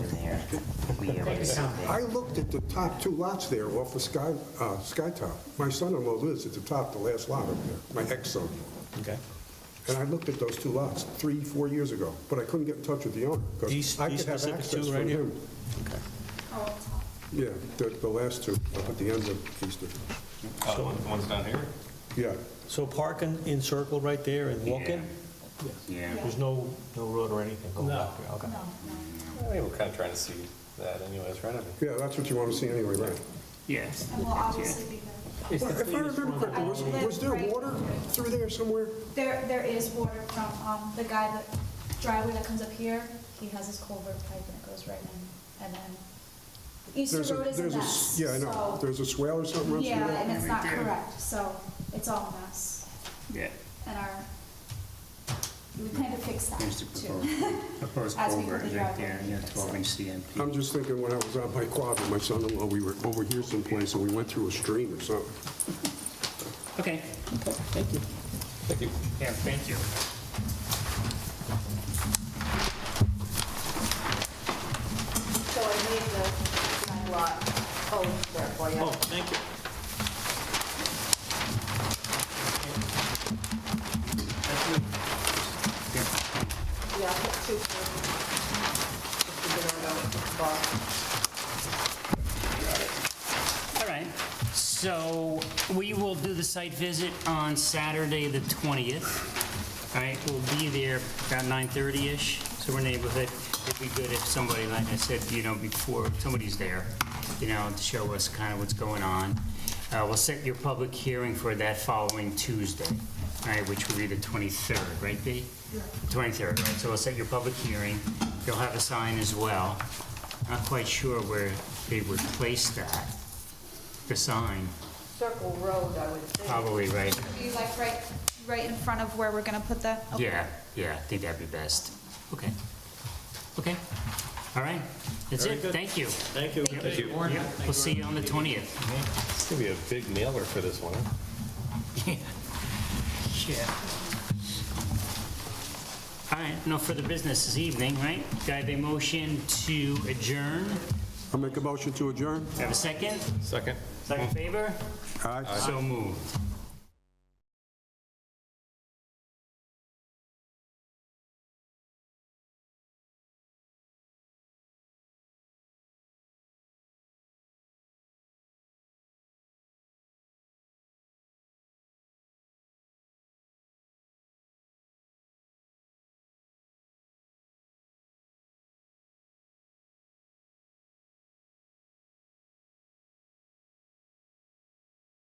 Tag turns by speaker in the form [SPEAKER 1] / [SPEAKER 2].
[SPEAKER 1] I looked at the top two lots there off of Sky, uh, Sky Top. My son-in-law lives at the top, the last lot up there, my ex-son.
[SPEAKER 2] Okay.
[SPEAKER 1] And I looked at those two lots three, four years ago, but I couldn't get in touch with the owner
[SPEAKER 2] These-
[SPEAKER 1] because I
[SPEAKER 2] these
[SPEAKER 1] could have
[SPEAKER 2] specific
[SPEAKER 1] access
[SPEAKER 2] two
[SPEAKER 1] from
[SPEAKER 2] right here?
[SPEAKER 1] him. Yeah, the, the last two up at the end of Easter.
[SPEAKER 3] Oh, the one- the ones down here?
[SPEAKER 1] Yeah,
[SPEAKER 2] So parking in circle right there and walking?
[SPEAKER 3] Yeah.
[SPEAKER 2] There's no, no road or anything going
[SPEAKER 4] No.
[SPEAKER 2] up here? Okay.
[SPEAKER 4] I think we're kind of trying to see that anyways, right? I mean,
[SPEAKER 1] yeah, that's what you want to see anyway, right?
[SPEAKER 5] Yes.
[SPEAKER 6] And we'll obviously be there.
[SPEAKER 1] Well, If I remember correctly, was, was there water through there somewhere?
[SPEAKER 6] There, there is water from, um, the guy that, driveway that comes up here, he has his culvert pipe and it goes right in, and then Easter
[SPEAKER 1] There's a-
[SPEAKER 6] Road is a
[SPEAKER 1] there's
[SPEAKER 6] mess,
[SPEAKER 1] Yeah, I know.
[SPEAKER 6] so.
[SPEAKER 1] There's a swale or something else?
[SPEAKER 6] Yeah, and it's not
[SPEAKER 5] Right there.
[SPEAKER 6] correct, so it's all a mess,
[SPEAKER 5] Yeah.
[SPEAKER 6] and our, we plan to fix that
[SPEAKER 5] There's the
[SPEAKER 6] too.
[SPEAKER 5] proposed- proposed
[SPEAKER 6] As we
[SPEAKER 5] culvert
[SPEAKER 6] complete
[SPEAKER 5] right
[SPEAKER 6] our
[SPEAKER 5] there,
[SPEAKER 6] work.
[SPEAKER 5] yeah, 12-inch CMP.
[SPEAKER 1] I'm just thinking when I was out by Quabbin, my son-in-law, we were over here someplace and we went through a stream or something.
[SPEAKER 5] Okay.
[SPEAKER 4] Thank you.
[SPEAKER 5] Yeah, thank you.
[SPEAKER 7] So I made the, my lot, oh, there for you.
[SPEAKER 4] Oh, thank you.
[SPEAKER 7] Yeah, I have two. for-
[SPEAKER 5] All right. So we will do the site visit on Saturday, the 20th. All right, we'll be there about 9:30-ish, so our neighborhood. It'd be good if somebody, like I said, you know, before, somebody's there, you know, to show us kind of what's going on. Uh, We'll set your public hearing for that following Tuesday, all right, which will be the 23rd, right, Dee? 23rd, right, so we'll set your public hearing. You'll have a sign as well. Not quite sure where they would place that, the sign,
[SPEAKER 7] Circle Road, I would think.
[SPEAKER 5] probably, right?
[SPEAKER 6] Be like right, right in front of where we're gonna put the, okay.
[SPEAKER 5] Yeah, yeah, I think that'd be best. Okay. Okay. All right, that's it, thank you.
[SPEAKER 4] Thank you. Thank you.
[SPEAKER 5] Yeah, We'll see you on the 20th.
[SPEAKER 4] It's gonna be a big mailer for this one, huh?
[SPEAKER 5] Yeah. All right, no further business this evening, right? Do I have a motion to adjourn?
[SPEAKER 1] I make a motion to adjourn?
[SPEAKER 5] Do I have a second?
[SPEAKER 4] Second.
[SPEAKER 5] Second favor?
[SPEAKER 1] Aye.
[SPEAKER 5] So moved.